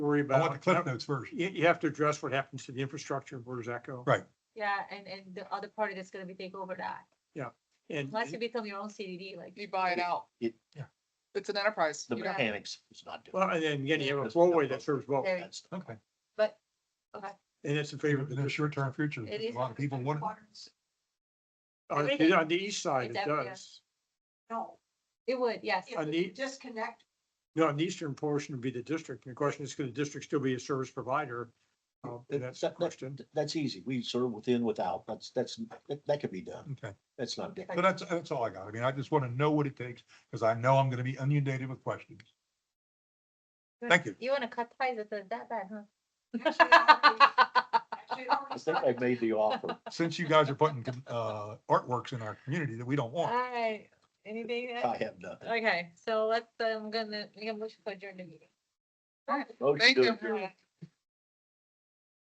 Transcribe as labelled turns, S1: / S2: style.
S1: worry
S2: I want the
S1: about.
S2: cliff notes first.
S1: You, you have to address what happens to the infrastructure, where does that go?
S2: Right.
S3: Yeah, and, and the other party that's gonna be take over that,
S1: And,
S2: Mm-hmm.
S3: unless you become your own CDD, like.
S4: You buy it out.
S5: It-
S2: Yeah.
S4: It's an enterprise.
S5: The
S4: You don't-
S5: mechanics is not doing.
S1: well, and then again, you have a
S5: Because-
S1: flowway that serves both,
S3: There-
S5: That's-
S2: Okay.
S3: But, okay.
S1: and it's a
S2: Favor
S1: favorite.
S2: the short-term future.
S3: It is
S2: A lot of people want it.
S3: water.
S1: On the, on the east side, it
S3: Everything. It's everywhere.
S1: does.
S6: No,
S3: It would, yes.
S1: I
S6: if we
S1: need-
S6: disconnect,
S1: No, on the eastern portion would be the district. And the question is, could the district still be a service provider? Uh, and that's the
S5: That- that-
S1: question.
S5: That's easy. We serve within, without. That's, that's, that, that could be done.
S2: Okay,
S5: That's not. difficult.
S2: but that's, that's all I got. I mean, I just want to know what it takes because I know I'm going to be inundated with questions. Thank you.
S3: You wanna cut ties with us that bad, huh?
S6: Actually, actually, it already
S5: I think I made the offer.
S2: Since you guys are putting uh, artworks in our community that we don't want.
S3: Alright, anything? else?
S5: I have nothing.
S3: Okay, so let's, I'm gonna, I'm gonna push for adjourned meeting.
S5: Motion
S4: Thank
S5: to
S4: you.
S5: adjourn.
S3: Alright.